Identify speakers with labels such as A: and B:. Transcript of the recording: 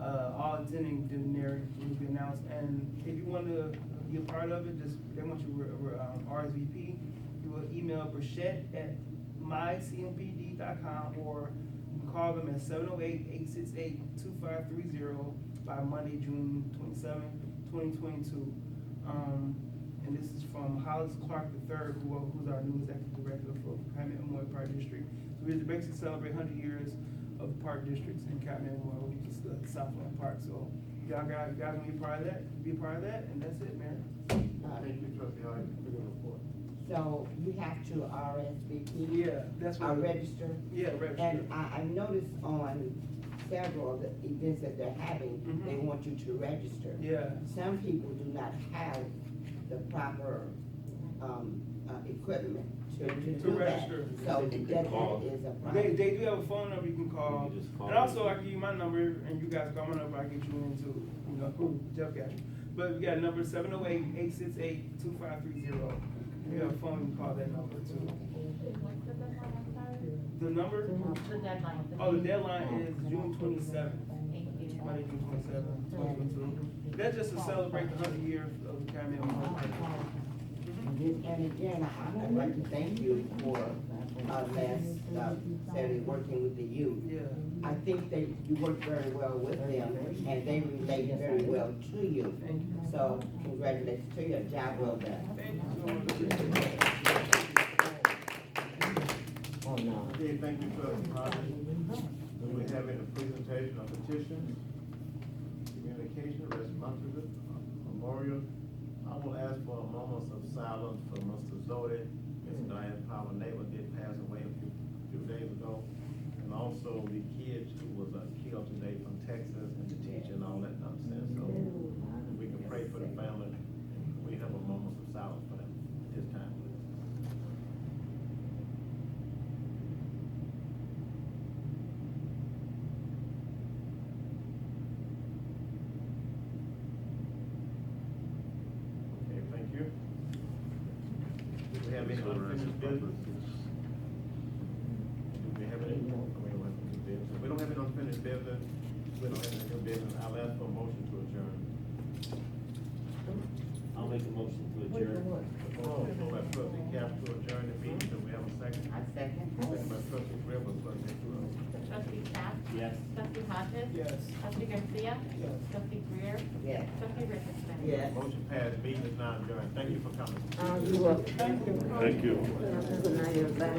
A: Uh, all attending dinner will be announced, and if you wanna be a part of it, just, they want you to re- re- um, RSVP. You will email Brichette at mycmpd.com or call them at 708-868-2530 by Monday, June 27, 2022. Um, and this is from Hollis Clark III, who, who's our new executive director for Calumet Memorial Park District. So we're just basically celebrate hundred years of park districts in Calumet Memorial, which is the Southland Park. So y'all got, y'all gonna be a part of that, be a part of that, and that's it, man.
B: Thank you, trustee Harden, for your report.
C: So you have to RSVP?
A: Yeah, that's what.
C: Or register?
A: Yeah, register.
C: And I, I noticed on several of the events that they're having, they
A: Mhm.
C: want you to register.
A: Yeah,
C: Some people do not have the proper, um, uh, equipment to, to
A: To
C: do that.
A: register.
C: So
D: They
C: that,
D: can
C: that
D: call.
C: is a
A: they,
C: problem.
A: they do have a phone number you can call.
D: You just call.
A: And also, I give you my number, and you guys call my number, I get you in too, you know, who, Jeff got you. But we got a number, seven oh eight, eight six eight, two five three zero. We have a phone, you can call that number too.
E: What's the deadline, I'm sorry?
A: The number,
E: The deadline.
A: oh, the deadline is June twenty-seventh,
E: Thank you.
A: Monday, June twenty-seventh, twenty twenty-two. That's just to celebrate the hundred years of the Calumet Memorial Park.
C: And this- And again, I would like to thank you for, uh, last, uh, Saturday, working with the youth.
A: Yeah,
C: I think they, you work very well with them, and they relate very well to you.
A: thank you.
C: So congratulations to you, job well done.
A: Thank you so much. Appreciate it.
C: Oh, no.
B: Okay, thank you, trustee Harden. Do we have any presentation of petitions, communication, responsibility, memorial? I will ask for a moment of silence for Mr. Zodi. Ms. Diane Power neighbor did pass away a few, few days ago. And also the kid who was uh, killed today from Texas and the teacher and all that nonsense. So we can pray for the family. We have a moment of silence for them at this time, please. Okay, thank you. Do we have any unfinished business? Do we have any, I mean, what, business? we don't have any unfinished business, we don't have any new business, I'll ask for a motion to adjourn.
D: I'll make a motion to adjourn.
B: The motion is by trustee Cap to adjourn the meeting, do we have a second?
C: I second.
B: Second by trustee Griffin, trustee Cruz.
E: Trustee Cap?
D: Yes.
E: Trustee Hodges?
A: Yes.
E: Trustee Garcia?
A: Yes.
E: Trustee Greer?
C: Yes.
E: Trustee Richardson?
C: Yes.
B: Motion passed, meeting is now adjourned, thank you for coming.
C: Um, you welcome.
A: Thank you.
D: Thank you.
C: Good night, everybody.